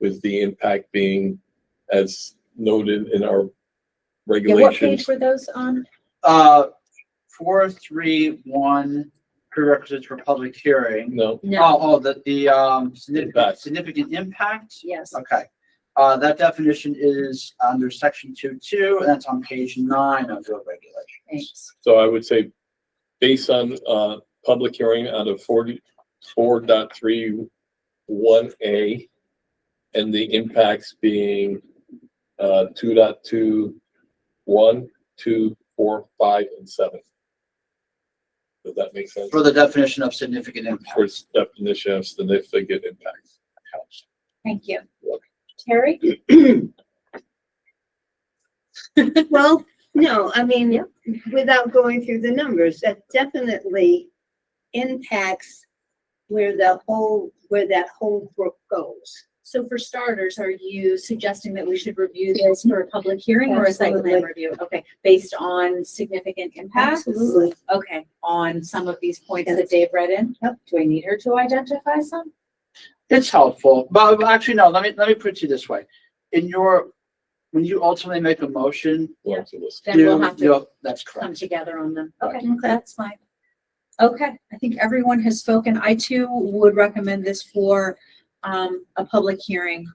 with the impact being as noted in our Yeah, what page regulations. were those on? Uh, four, three, one, prerequisites for public hearing. No, Oh, oh, the, the, um, significant, Impact. significant impact? Yes. Okay. Uh, that definition is under section two, two, and that's on page nine of your regulations. Thanks. so I would say based on, uh, public hearing out of forty-four dot three one A and the impacts being, uh, two dot two, one, two, four, five, and seven. Does that make sense? For the definition of significant For impact. its definition of significant impact. Thank you. Terry? Well, no, I mean, without going through the numbers, that definitely impacts where the whole, where that whole brook goes. So for starters, are you suggesting that we should review this for a public hearing or a site plan Absolutely. review? Okay, based on significant impacts? Absolutely. Okay, on some of these points Yes. that Dave read in? Yep. Do we need her to identify some? It's helpful, but but actually, no, let me, let me put it to you this way. In your, when you ultimately make a motion, Lawrence will listen. Then we'll you- have to you'll- That's come correct. together on them. Right. Okay, that's fine. Okay, I think everyone has spoken. I too would recommend this for um a public hearing.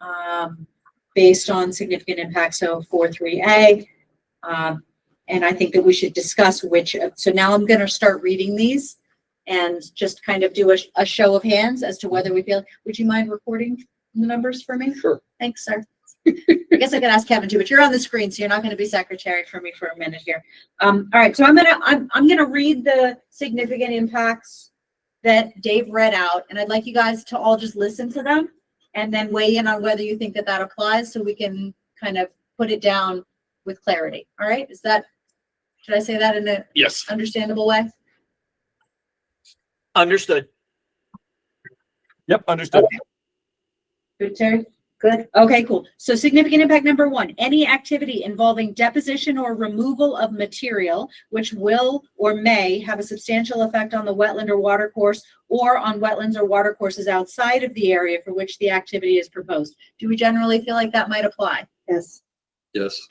Um, based on significant impact, so four, three A. Um, and I think that we should discuss which, so now I'm gonna start reading these. And just kind of do a a show of hands as to whether we feel, would you mind recording the numbers for me? Sure. Thanks, sir. I guess I could ask Kevin too, but you're on the screen, so you're not gonna be secretary for me for a minute here. Um, all right, so I'm gonna, I'm, I'm gonna read the significant impacts that Dave read out, and I'd like you guys to all just listen to them and then weigh in on whether you think that that applies, so we can kind of put it down with clarity, all right? Is that, should I say that in an Yes. understandable way? Understood. Yep, understood. Good, Terry? Good. Okay, cool. So significant impact number one, any activity involving deposition or removal of material which will or may have a substantial effect on the wetland or water course or on wetlands or water courses outside of the area for which the activity is proposed. Do we generally feel like that might apply? Yes. Yes.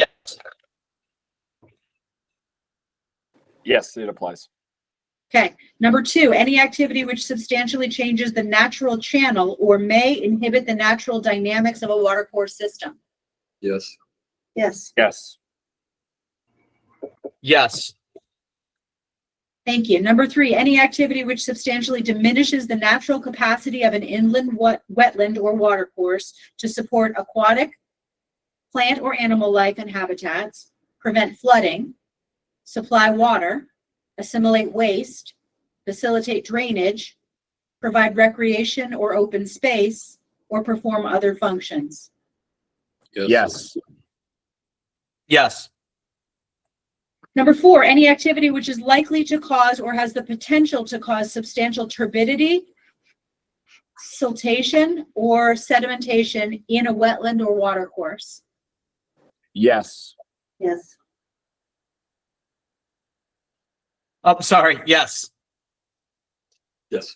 Yes, it applies. Okay, number two, any activity which substantially changes the natural channel or may inhibit the natural dynamics of a water course system. Yes. Yes. Yes. Yes. Thank you. Number three, any activity which substantially diminishes the natural capacity of an inland wet, wetland or watercourse to support aquatic, plant or animal life and habitats, prevent flooding, supply water, assimilate waste, facilitate drainage, provide recreation or open space, or perform other functions. Yes. Yes. Number four, any activity which is likely to cause or has the potential to cause substantial turbidity, siltation, or sedimentation in a wetland or watercourse. Yes. Yes. I'm Oh, sorry. Yes. Yes.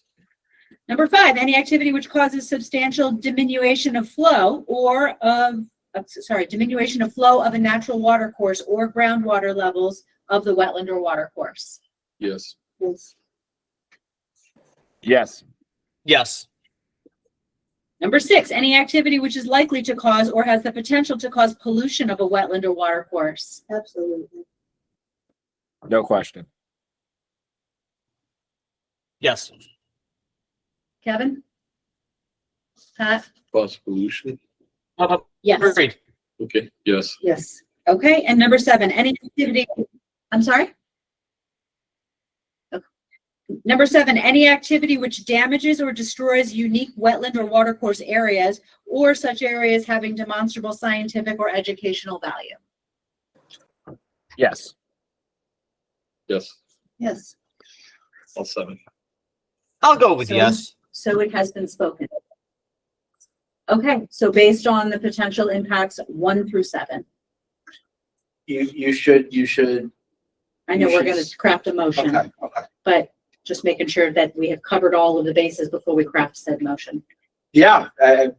Number five, any activity which causes substantial diminution of flow or of, uh, sorry, diminution of flow of a natural watercourse or groundwater levels of the wetland or watercourse. Yes. Yes. Yes. Yes. Number six, any activity which is likely to cause or has the potential to cause pollution of a wetland or watercourse. Absolutely. No question. Yes. Kevin? Pat? Cause pollution? Uh, Yes. Agreed. Okay, yes. Yes. Okay, and number seven, any activity, I'm sorry? Okay. Number seven, any activity which damages or destroys unique wetland or watercourse areas or such areas having demonstrable scientific or educational value. Yes. Yes, Yes. all seven. I'll go with So- yes. So it has been spoken. Okay, so based on the potential impacts, one through seven. You, you should, you should, I know You we're should gonna s- craft a motion. okay, okay. but just making sure that we have covered all of the bases before we craft said motion. Yeah, I, I-